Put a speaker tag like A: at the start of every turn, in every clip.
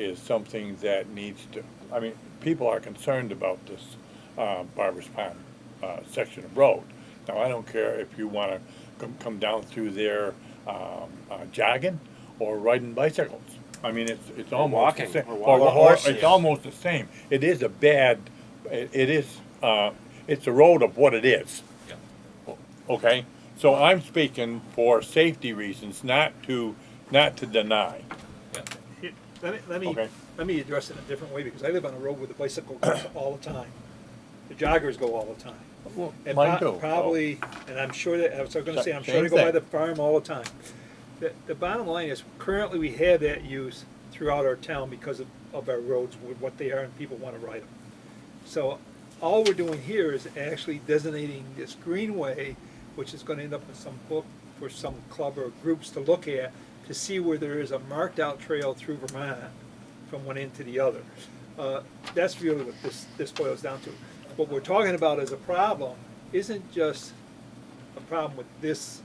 A: is something that needs to, I mean, people are concerned about this uh, Barbers Pond uh, section of road. Now, I don't care if you want to come, come down through there um, uh, jogging or riding bicycles. I mean, it's, it's almost the
B: walking,
A: same.
B: or walking.
A: or-
B: Or
A: It's
B: horses.
A: almost the same. It is a bad, it it is, uh, it's a road of what it is. Okay, so I'm speaking for safety reasons, not to, not to deny.
C: Here, Let me, let me,
A: Okay.
C: let me address it in a different way, because I live on a road where the bicycle goes all the time. The joggers go all the time. And
A: Mine
C: po-
A: too.
C: Probably, and I'm sure that, I was gonna say, I'm sure
A: Same
C: they go by
A: thing.
C: the farm all the time. The, the bottom line is, currently we have that use throughout our town because of, of our roads, with what they are, and people wanna ride them. So, all we're doing here is actually designating this greenway, which is gonna end up in some book for some club or groups to look at, to see where there is a marked out trail through Vermont from one end to the other. Uh, That's really what this, this boils down to. What we're talking about as a problem isn't just a problem with this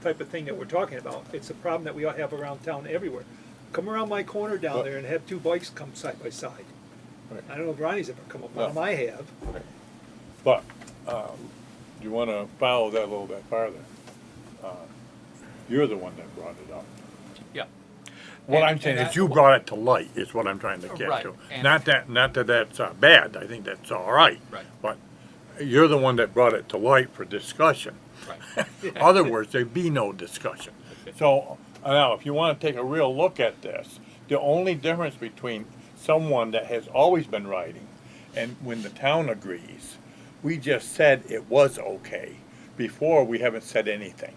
C: type of thing that we're talking about. It's a problem that we all have around town everywhere. Come around my corner down
A: But-
C: there and have two bikes come side by side.
A: Right.
C: I don't know if Ronnie's ever come up
A: No.
C: on them, I have.
A: But, um, you wanna follow that a little bit farther. Uh, You're the one that brought it up.
D: Yeah,
A: What
D: And-
A: I'm saying
D: and
A: is
D: I-
A: you brought it to light, is what I'm trying to get
D: Right,
A: to.
D: and-
A: Not that, not that that's uh, bad, I think that's all right.
D: Right.
A: But you're the one that brought it to light for discussion.
D: right.
A: Other words, there'd be no discussion. So, uh, now, if you want to take a real look at this, the only difference between someone that has always been riding and when the town agrees, we just said it was okay. Before, we haven't said anything.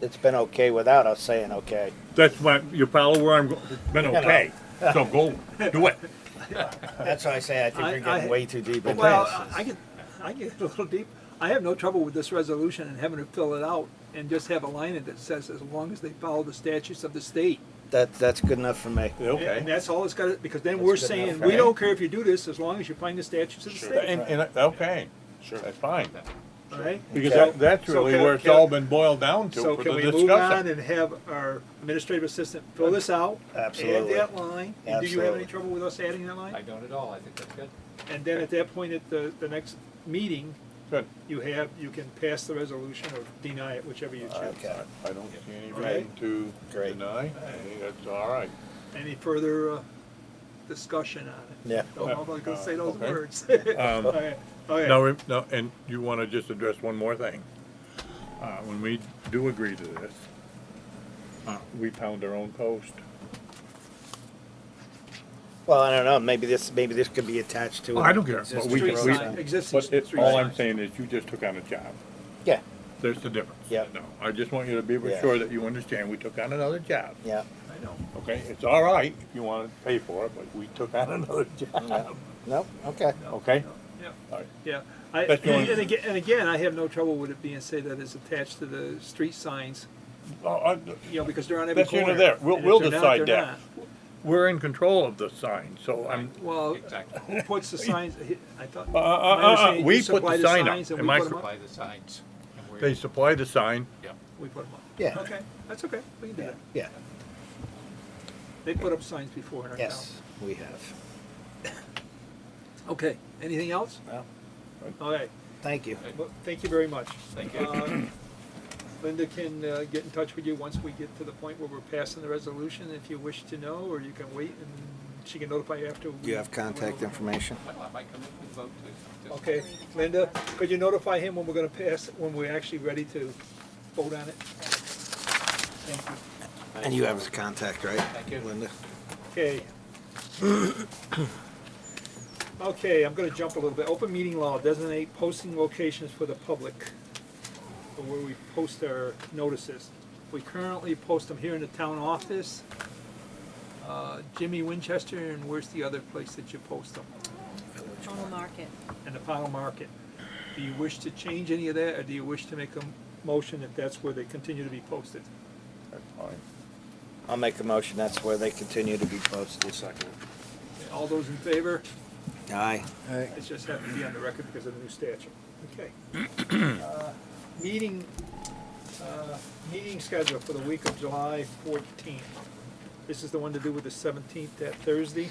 B: It's been okay without us saying okay.
A: That's why, you follow where I'm, go- it's been okay, so go do it.
B: That's why I say I think
C: I-
B: you're getting
C: I-
B: way too deep into
C: Well, uh,
B: this.
C: I get, I get a little deep. I have no trouble with this resolution and having to fill it out and just have a line in it that says, as long as they follow the statutes of the state.
B: That that's good enough for me.
C: And that's all it's got, because then we're
B: good
C: saying,
B: enough,
C: we
B: right?
C: don't care if you do this, as long as you find the statutes of the state,
A: And, and, okay, sure, that's fine.
C: all right?
A: Because
C: So-
A: that, that's
C: so
A: really
C: can-
A: where it's
C: can-
A: all been boiled down to
C: So
A: for
C: can
A: the
C: we move on
A: discussion.
C: and have our administrative assistant fill this out?
B: Absolutely.
C: Add that line, and do you have any
B: Absolutely.
C: trouble with us adding that
D: I
C: line?
D: don't at all, I think that's good.
C: And then at that point, at the, the next meeting,
A: Good.
C: you have, you can pass the resolution or deny it, whichever you choose.
B: Okay.
A: I don't see any
C: Okay.
A: reason to
B: Great.
A: deny. I think that's all right.
C: Any further uh, discussion on it?
B: Yeah.
C: Don't know if I'm gonna say those
A: Okay.
C: words.
A: Um,
C: Okay,
B: Oh,
C: okay.
A: Now, re- now, and you want to just address one more thing. Uh, when we do agree to this, uh, we pound our own post.
B: Well, I don't know. Maybe this maybe this could be attached to.
A: Oh, I don't care, but
B: existing
A: we-
C: Street
A: can- we-
C: sign,
B: roads.
C: Existing
A: But
C: street
A: it,
C: sign.
A: all I'm saying is you just took on a job.
B: yeah,
A: There's the difference.
B: Yeah.
A: No, I just want you to be
B: Yeah.
A: sure that you understand we took on another job.
B: yeah.
C: I know.
A: Okay, it's all right if you want to pay for it, but we took on another job.
B: Nope. Okay.
A: Okay?
C: Yeah.
A: All right.
C: Yeah, I,
A: That's the only-
C: and again, and again, I have no trouble with it being said that it's attached to the street signs,
A: Well, I-
C: you know, because they're on every
A: That's
C: corner.
A: neither there. We'll,
C: And if
A: we'll
C: they're not,
A: decide
C: they're
A: that. We're in control of the sign, so I'm,
C: not. Well,
D: Exactly,
C: who puts the signs, I
A: Uh,
C: thought.
A: uh,
C: my
A: uh, uh,
C: understanding is
A: we
C: you
A: put the
C: supply
A: sign up.
C: signs and
A: Am
C: we
A: I
C: put 'em
A: cor-
C: up.
D: by the signs. and we're-
A: they supply the sign.
D: Yeah,
C: We put 'em up.
B: Yeah.
C: Okay, that's okay, we can do that.
B: Yeah.
C: They put up signs before in our town.
B: Yes, we have.
C: Okay, anything else?
B: Well,
C: All right,
B: thank you.
C: well, thank you very much.
D: thank you.
C: Uh, Linda can uh, get in touch with you once we get to the point where we're passing the resolution, if you wish to know, or you can wait and she can notify you after. we-
B: You have contact information.
D: Well, I might come in and vote too. Just-
C: Okay, Linda, could you notify him when we're gonna pass, when we're actually ready to vote on it? Thank you.
B: And you have his contact, right?
D: Thank you.
B: Linda.
C: Okay. Okay, I'm gonna jump a little bit. Open meeting law, designate posting locations for the public, for where we post our notices. We currently post them here in the town office, uh, Jimmy Winchester, and where's the other place that you post them?
E: On the market.
C: And the Pownell Market. Do you wish to change any of that, or do you wish to make a motion that that's where they continue to be posted?
A: That's fine.
B: I'll make a motion. That's where they continue to be posted. Second.
C: All those in favor?
B: Aye.
C: It just happened to be on the record because of the new statute. Okay. Uh, Meeting, uh, meeting schedule for the week of July 14th. This is the one to do with the seventeenth, that Thursday.